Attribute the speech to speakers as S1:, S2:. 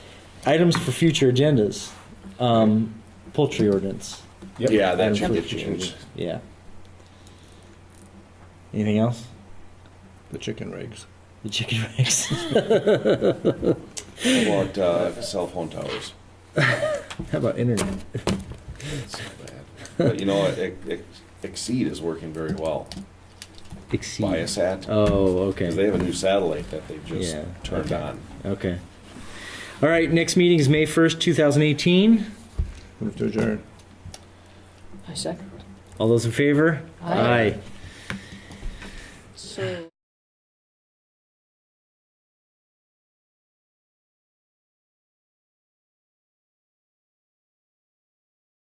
S1: items for future agendas. Um, poultry ordinance.
S2: Yep.
S3: Yeah, that
S1: Items
S3: should
S1: for
S3: get
S1: future
S3: changed.
S1: agendas. Yeah. Anything else?
S4: the chicken rigs.
S1: The chicken rigs.
S3: How About uh, cell phone towers.
S4: How about internet?
S3: That's so bad. But you know, Ex- Ex- Exceed is working very well.
S1: Exceed.
S3: Viasat,
S1: Oh,
S3: because they
S1: okay.
S3: have a new satellite that they've just
S1: Yeah,
S3: turned
S1: okay.
S3: on.
S1: Okay. All right. Next meeting is May first, two thousand eighteen.
S4: Move to adjourn.
S5: I second.
S1: All those in favor?
S5: Aye.
S1: Aye.
S5: So.